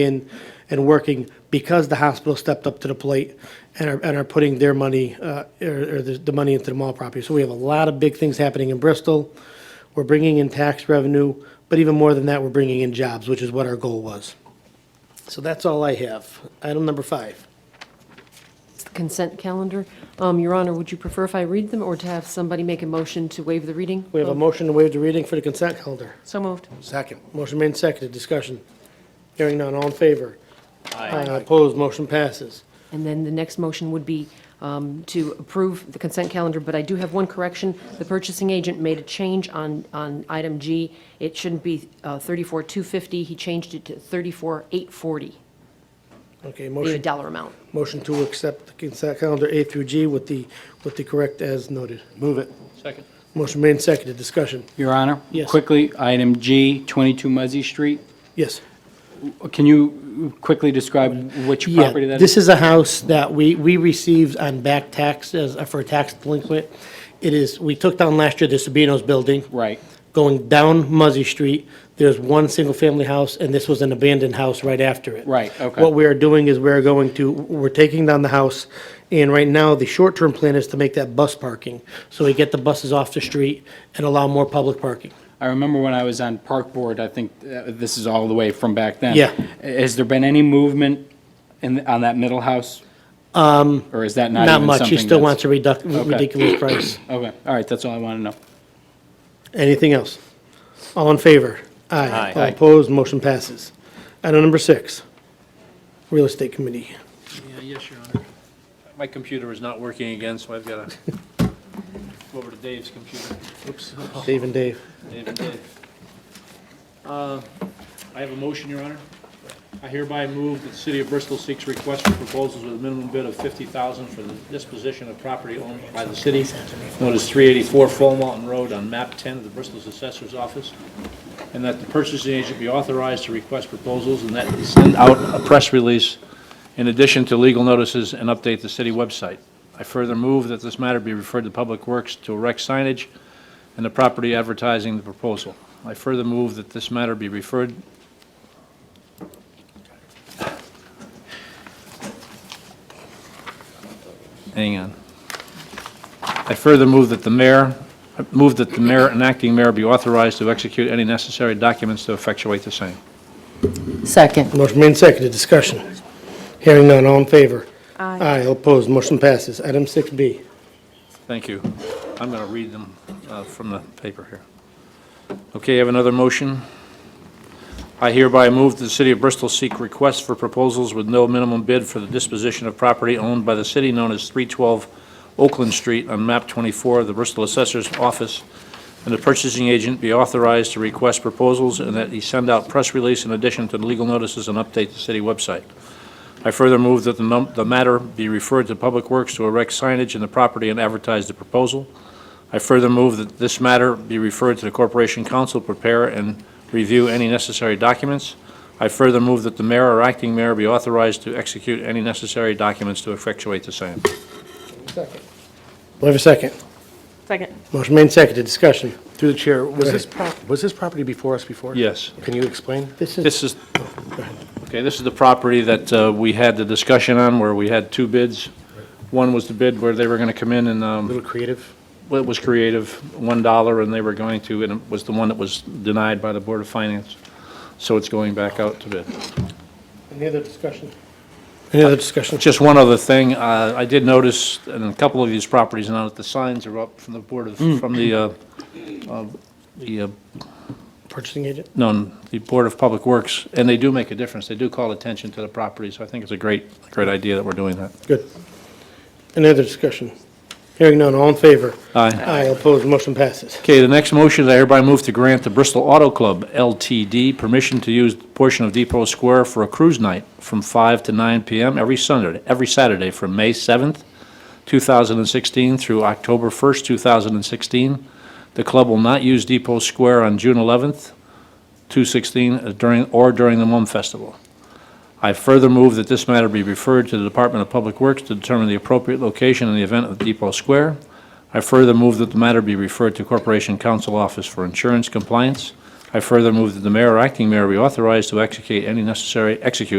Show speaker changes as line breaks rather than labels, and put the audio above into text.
in and working because the hospital stepped up to the plate and are, and are putting their money, uh, or, or the, the money into the mall property. So we have a lot of big things happening in Bristol. We're bringing in tax revenue, but even more than that, we're bringing in jobs, which is what our goal was. So that's all I have. Item number five.
It's the consent calendar. Um, Your Honor, would you prefer if I read them or to have somebody make a motion to waive the reading?
We have a motion to waive the reading for the consent calendar.
So moved.
Second. Motion made and seconded. Discussion. Hearing none. All in favor? Aye. Opposed? Motion passes.
And then the next motion would be um, to approve the consent calendar, but I do have one correction. The purchasing agent made a change on, on item G. It shouldn't be uh, 34,250. He changed it to 34,840,
Okay,
the
motion,
dollar amount.
motion to accept the consent calendar A through G with the, with the correct as noted. Move it.
Second.
Motion made and seconded. Discussion.
Your Honor?
Yes.
Quickly, item G, 22 Muzzy Street.
Yes.
Can you quickly describe which
Yeah,
property that
This
is?
is a house that we, we received on back tax as, for a tax delinquent. It is, we took down last year the Sabino's building.
Right.
Going down Muzzy Street, there's one single-family house, and this was an abandoned house right after it.
Right, okay.
What we are doing is we're going to, we're taking down the house, and right now, the short-term plan is to make that bus parking. So we get the buses off the street and allow more public parking.
I remember when I was on Park Board, I think uh, this is all the way from back then.
Yeah.
Has there been any movement in, on that middle house? Um. Or is that not
Not
even
much, he
something
still wants
that's-
a reduc- ridiculous price.
Okay, all right, that's all I want to know.
Anything else? All in favor? Aye. All opposed, motion passes. Item number six, Real Estate Committee.
Yeah, yes, Your Honor. My computer is not working again, so I've got to go over to Dave's computer. Oops,
Dave and Dave.
Dave and Dave. Uh, I have a motion, Your Honor. I hereby move that the City of Bristol seeks requests for proposals with a minimum bid of $50,000 for the disposition of property owned by the city, known as 384 Fullmountain Road on map 10 of the Bristol's Assessor's Office, and that the purchasing agent be authorized to request proposals and that he send out a press release in addition to legal notices and update the city website. I further move that this matter be referred to Public Works to erect signage and the property advertising the proposal. I further move that this matter be referred, hang on. I further move that the mayor, move that the mayor and acting mayor be authorized to execute any necessary documents to effectuate the same.
Second.
Motion made and seconded, discussion. Hearing none, all in favor? Aye. Aye, all opposed, motion passes. Item 6B.
Thank you. I'm going to read them uh, from the paper here. Okay, I have another motion. I hereby move that the City of Bristol seek requests for proposals with no minimum bid for the disposition of property owned by the city known as 312 Oakland Street on map 24 of the Bristol Assessor's Office, and the purchasing agent be authorized to request proposals, and that he send out press release in addition to legal notices and update the city website. I further move that the num- the matter be referred to Public Works to erect signage in the property and advertise the proposal. I further move that this matter be referred to the Corporation Council, prepare and review any necessary documents. I further move that the mayor or acting mayor be authorized to execute any necessary documents to effectuate the same.
Do I have a second?
Second.
Motion made and seconded, discussion.
Through the chair, was
Go
this, prop- was this property before us before?
Yes.
Can you explain?
This is,
This is, okay, this is the property that uh, we had the discussion on where we had two bids. One was the bid where they were going to come in and um,
A little creative?
Well, it was creative, one dollar, and they were going to, and it was the one that was denied by the Board of Finance. So it's going back out to bid.
any other discussion? Any other discussion?
Just one other thing, uh, I did notice in a couple of these properties now that the signs are up from the Board of, from the, uh, uh, the, uh,
Purchasing agent?
no, the Board of Public Works, and they do make a difference. They do call attention to the property, so I think it's a great, great idea that we're doing that.
Good. Any other discussion? Hearing none, all in favor?
Aye.
Aye, all opposed, motion passes.
Okay, the next motion is I hereby move to grant the Bristol Auto Club LTD permission to use a portion of Depot Square for a cruise night from 5 to 9 PM every Sunday, every Saturday from May 7th, 2016 through October 1st, 2016. The club will not use Depot Square on June 11th, 2016, uh, during, or during the Mum Festival. I further move that this matter be referred to the Department of Public Works to determine the appropriate location in the event of Depot Square. I further move that the matter be referred to Corporation Council Office for Insurance Compliance. I further move that the mayor or acting mayor be authorized to execute any necessary, execute